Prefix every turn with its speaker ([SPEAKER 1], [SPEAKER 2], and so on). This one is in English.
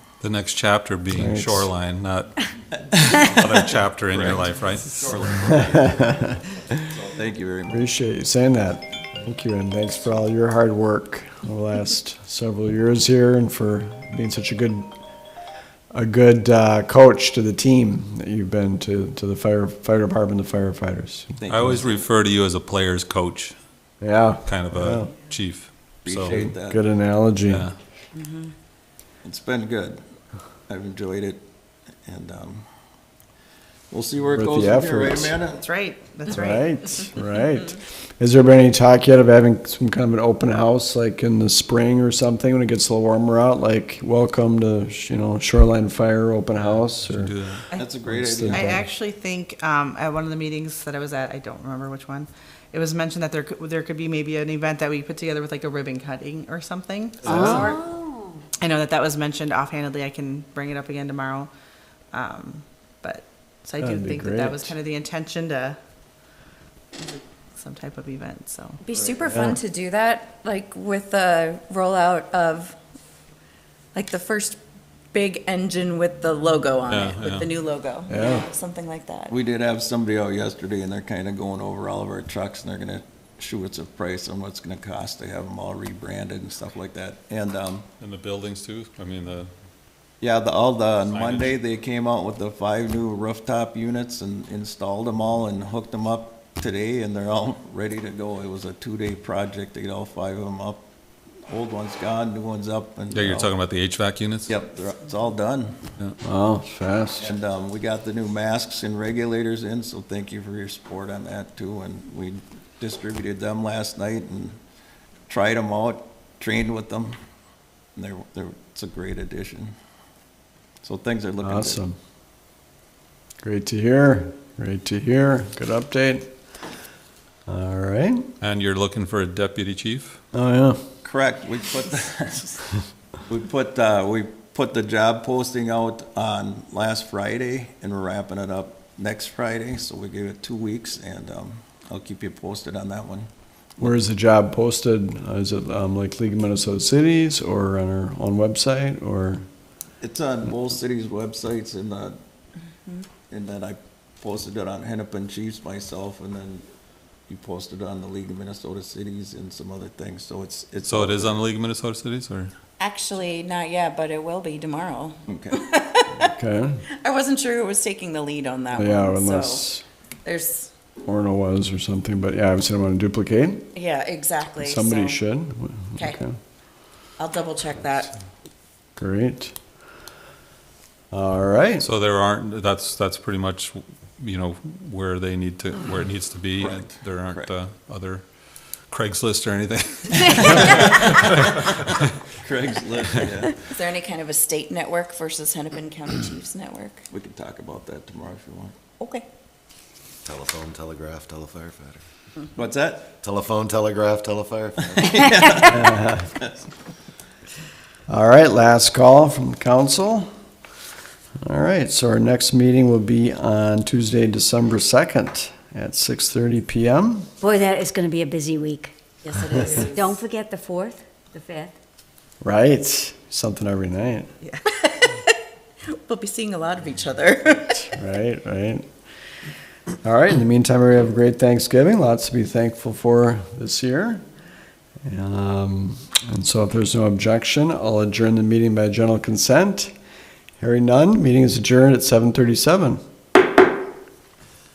[SPEAKER 1] The next chapter being
[SPEAKER 2] Thanks.
[SPEAKER 1] shoreline, not another chapter in your life, right?
[SPEAKER 3] Thank you very much.
[SPEAKER 2] Appreciate you saying that. Thank you, and thanks for all your hard work over the last several years here, and for being such a good, a good uh, coach to the team that you've been to to the fire fire department, the firefighters.
[SPEAKER 3] Thank
[SPEAKER 1] I
[SPEAKER 3] you.
[SPEAKER 1] always refer to you as a player's coach,
[SPEAKER 2] Yeah,
[SPEAKER 1] kind of
[SPEAKER 2] Yeah.
[SPEAKER 1] a chief. So,
[SPEAKER 3] Appreciate that.
[SPEAKER 2] good analogy.
[SPEAKER 1] yeah,
[SPEAKER 3] It's been good. I've enjoyed it, and um, we'll see where it
[SPEAKER 2] Worth
[SPEAKER 3] goes
[SPEAKER 2] the
[SPEAKER 3] from here, right,
[SPEAKER 2] efforts.
[SPEAKER 3] Amanda?
[SPEAKER 4] That's right, that's right.
[SPEAKER 2] Right, right. Has there been any talk yet of having some kind of an open house, like in the spring or something, when it gets a little warmer out? Like, welcome to you know Shoreline Fire Open House or
[SPEAKER 1] do that.
[SPEAKER 3] That's a great
[SPEAKER 2] Let's
[SPEAKER 3] idea.
[SPEAKER 2] see.
[SPEAKER 4] I actually think, um, at one of the meetings that I was at, I don't remember which one, it was mentioned that there could, there could be maybe an event that we put together with like a ribbon cutting or something. of some
[SPEAKER 5] Oh.
[SPEAKER 4] sort. I know that that was mentioned offhandedly, I can bring it up again tomorrow. Um, but, so I do
[SPEAKER 2] That'd be
[SPEAKER 4] think that that was
[SPEAKER 2] great.
[SPEAKER 4] kind of the intention to, some type of event, so.
[SPEAKER 5] Be super fun to do that, like with the rollout of, like the first big engine with the logo on it,
[SPEAKER 1] Yeah, yeah.
[SPEAKER 5] with the new logo.
[SPEAKER 2] Yeah.
[SPEAKER 5] Something like that.
[SPEAKER 3] We did have somebody out yesterday, and they're kind of going over all of our trucks, and they're gonna shoot us a price on what's gonna cost to have them all rebranded and stuff like that. And um,
[SPEAKER 1] And the buildings too, I mean, the,
[SPEAKER 3] yeah, the, all the, on
[SPEAKER 1] Signage.
[SPEAKER 3] Monday, they came out with the five new rooftop units and installed them all and hooked them up today, and they're all ready to go. It was a two-day project to get all five of them up. Old one's gone, new one's up, and.
[SPEAKER 1] yeah, you're
[SPEAKER 3] uh,
[SPEAKER 1] talking about the HVAC units?
[SPEAKER 3] Yep, they're- it's all done.
[SPEAKER 2] wow, fast.
[SPEAKER 3] And um, we got the new masks and regulators in, so thank you for your support on that too. And we distributed them last night and tried them out, trained with them. And they're, they're, it's a great addition. So things are looking good.
[SPEAKER 2] Awesome. Great to hear. Great to hear. Good update. All right.
[SPEAKER 1] And you're looking for a deputy chief?
[SPEAKER 2] Oh,
[SPEAKER 3] Correct, we put, the- we put, uh, we put the job posting out on last Friday, and we're wrapping it up next Friday, so we give it two weeks, and, um, I'll keep you posted on that one.
[SPEAKER 2] yeah. Where is the job posted? Uh, Is it um, like League of Minnesota Cities or on our own website or?
[SPEAKER 3] It's on both cities' websites, and, uh, and then I posted it on Hennepin Chiefs myself, and then you posted it on the League of Minnesota Cities and some other things, so it's, it's.
[SPEAKER 1] So it is on the League of Minnesota Cities or?
[SPEAKER 5] Actually, not yet, but it will be tomorrow.
[SPEAKER 3] Okay.
[SPEAKER 2] Okay.
[SPEAKER 5] I wasn't sure who was taking the lead on that
[SPEAKER 2] Yeah,
[SPEAKER 5] one, so
[SPEAKER 2] unless
[SPEAKER 5] there's,
[SPEAKER 2] Orno was or something, but yeah, I was going to duplicate.
[SPEAKER 5] yeah, exactly.
[SPEAKER 2] Somebody
[SPEAKER 5] so
[SPEAKER 2] should.
[SPEAKER 5] Okay. I'll double check that.
[SPEAKER 2] Great. All right.
[SPEAKER 1] So there aren't, that's, that's pretty much, you know, where they need to, where it needs to be. and
[SPEAKER 3] Correct.
[SPEAKER 1] There aren't
[SPEAKER 3] Correct.
[SPEAKER 1] uh, other Craigslist or anything.
[SPEAKER 3] Craigslist, yeah,
[SPEAKER 5] Is there any kind of a state network versus Hennepin County Chiefs Network?
[SPEAKER 3] we can talk about that tomorrow if you want.
[SPEAKER 5] Okay.
[SPEAKER 6] Telephone, telegraph, telefirefighter.
[SPEAKER 3] What's that?
[SPEAKER 6] Telephone, telegraph, telefirefighter.
[SPEAKER 2] All right, last call from council. All right, so our next meeting will be on Tuesday, December 2nd at 6:30 PM.
[SPEAKER 7] Boy, that is going to be a busy week.
[SPEAKER 5] Yes, it is.
[SPEAKER 7] Don't forget the 4th, the 5th.
[SPEAKER 2] Right, something every night,
[SPEAKER 5] We'll be seeing a lot of each other.
[SPEAKER 2] right, right. All right, in the meantime, we have a great Thanksgiving, lots to be thankful for this year. Um, And so if there's no objection, I'll adjourn the meeting by general consent. Hearing none, meeting is adjourned at 7:37.